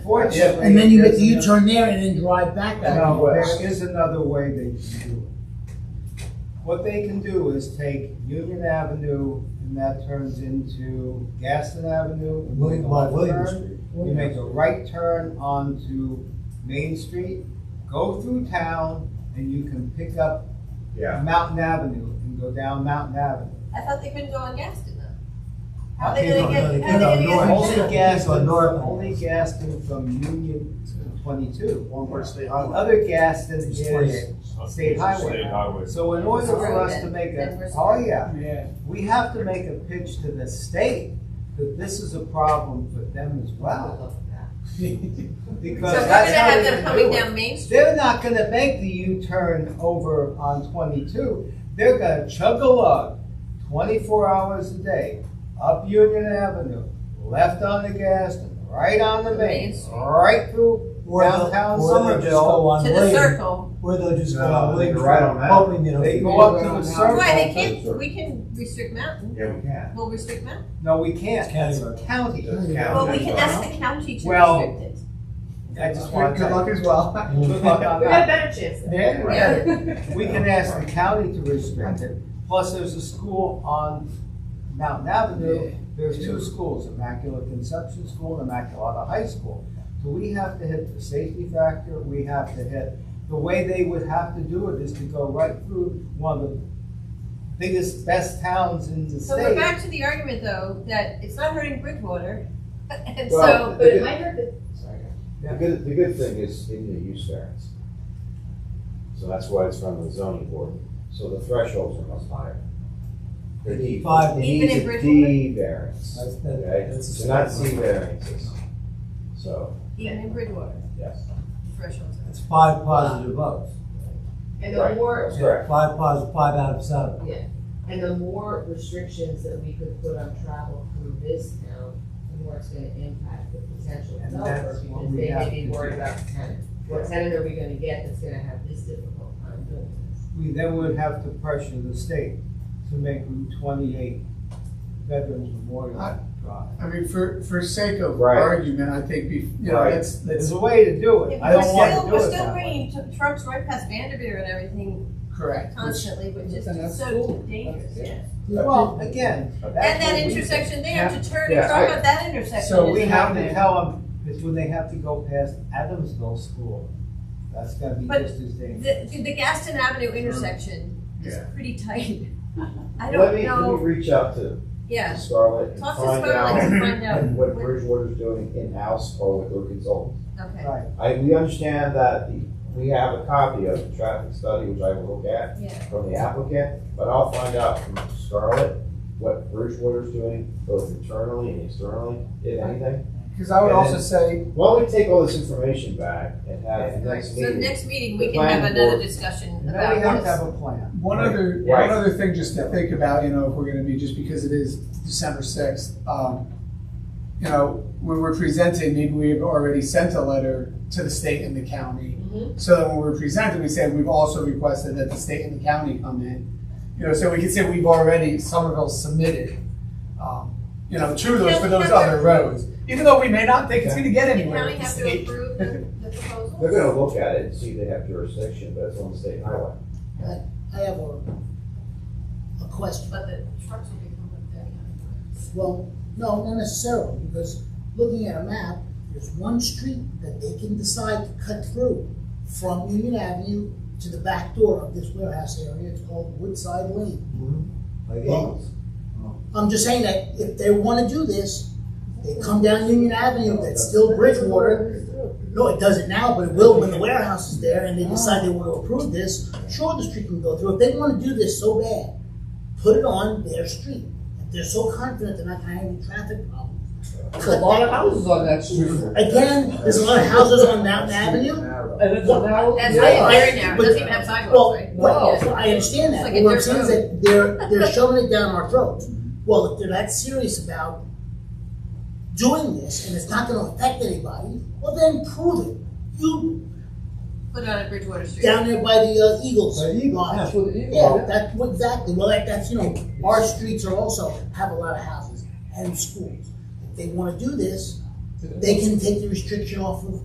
Fortunately, And then you get there's the another- U-turn there and then drive back that No, way. there is another way they can do it. What they can do is take Union Avenue, and that turns into Gaston Avenue. You William, make a by left William turn, Street. You make a right turn onto Main Street, go through town, and you can pick up Yeah. Mountain Avenue and go down Mountain Avenue. I thought they couldn't go on Gaston though. How I are they think gonna on- get, they how are they can go north. gonna get? Only to town? Gaston, North. only Gaston from Union to twenty-two. One part state The highway. other Gaston It's is 28. State State highway. highway. So in order for us to Suburban, make then we're a, oh yeah, Yeah. we have to make a pitch to the state that this is a problem for them as well. So Because we're gonna that's how have they're them gonna coming do it. down Main Street? They're not gonna make the U-turn over on twenty-two. They're gonna chug along twenty-four hours a day, up Union Avenue, left on the Gaston, right on the main, Main Street. right through Or they'll- Downtown or they'll just Somerville. go on To the William- circle. Or they'll just go No, on they William go right Street, on that. hoping that it'll. They go fit. up to the circle. Why, they Circle, can't, circle. we can restrict Mountain. Yeah, we can. We'll restrict Mountain. No, we can't. It's county It's road. county. That's county. Well, we can ask the county to Well, restrict it. I just want to. Good luck as well. Good luck on We got that. better chances. Then, Yeah. we can ask the county to restrict it, plus there's a school on Mountain Avenue, there's two schools, Immaculate Conception School and Immaculata High School. So we have to hit the safety factor, we have to hit, the way they would have to do it is to go right through one of the biggest, best towns in the So we're state. back to the argument though, that it's not hurting Bridgewater. And Well, so, But it might hurt the The good, the good thing is in the use variance. So that's why it's from the zoning board, so the thresholds are much higher. They need- Five. it Even needs in a Bridgewater? D variance, That's- that- okay, that's a it's not separate C one. variances, so, even in Bridgewater, yes. the thresholds are. It's five positive votes. and Right. the more That's correct. Five positive, five out of seven. and the more restrictions that we could put on travel through this town, the more it's gonna impact the potential And developer that's what because we they have may be to worried do. about the tenant. What tenant are we gonna get that's gonna have this difficult time doing this? We then would have to pressure the state to make Route twenty-eight Veterans Memorial Drive. I mean, for, for sake of Right. argument, I think, be- you know, Right. that's, It's that's a way to do it. I We're don't want to still, do we're it still that way. bringing tr- trucks right past Vanderveer and everything correct. constantly, which is and that's just so cool. dangerous, That's yeah. Well, again. that's And that what we- intersection there, to turn Yeah, and I- truck at that intersection. So we is have not- to tell them, is when they have to go past Adamsville School, that's gonna be But just as dangerous. The, the Gaston Avenue intersection is Yeah. pretty tight. I Let don't me, let me know, reach out to to yeah. Scarlett and Talk to find Scarlett and find out out what what- Bridgewater's doing in-house or with their consultant. Okay, Right. I, we understand that the- we have a copy of the traffic study, which I will look at yeah. from the applicant, but I'll find out from Scarlett what Bridgewater's doing, both internally and externally, if anything. Because I would And also then- say, Why don't we take all this information back and have the next So meeting? next meeting, we The can have planning another board- discussion And then we about have to have this. a plan. one other, Right. one other thing just to think about, you know, if we're gonna be, just because it is December sixth, um, you know, when we're presenting, maybe we've already sent a letter to the state and the county. Mm-hmm. So that when we're presenting, we say, we've also requested that the state and the county come in. You know, so we can say we've already, Somerville submitted, um, you know, to those, for those other roads. Even though we may not think it's gonna get The anywhere with county the have to state. approve the the proposal? They're gonna look at it and see if they have jurisdiction, but it's on the state highway. I have a, a question. But the trucks will be coming up there. Well, no, not necessarily, because looking at a map, there's one street that they can decide to cut through from Union Avenue to the back door of this warehouse area, it's called Woodside Lane. Like Well, Engels. I'm just saying that if they wanna do this, they come down Union Avenue, that's still Bridgewater. No, it doesn't now, but it will when the warehouse is there and they decide they wanna approve this, sure, the street can go through, if they wanna do this so bad, put it on their street. If they're so confident they're not gonna have any traffic problems, There's a lot of houses on that street. Again, there's a lot of houses on Mountain Avenue. And it's a narrow. That's Yeah. very, very narrow, it But- doesn't even have sidewalks, Well, right? well, Yeah. I understand It's like that, but a what I'm dirt saying is that they're, they're shoving it down our throats. Well, if they're that serious about doing this and it's not gonna affect anybody, well then prove it. You, Put on a Bridgewater Street. down there by the uh, Eagles The Eagles, lodge. That's what it is. Yeah, that, well, exactly, well, that, that's, you know, our streets are also, have a lot of houses and schools. If they wanna do this, They can take the restriction off of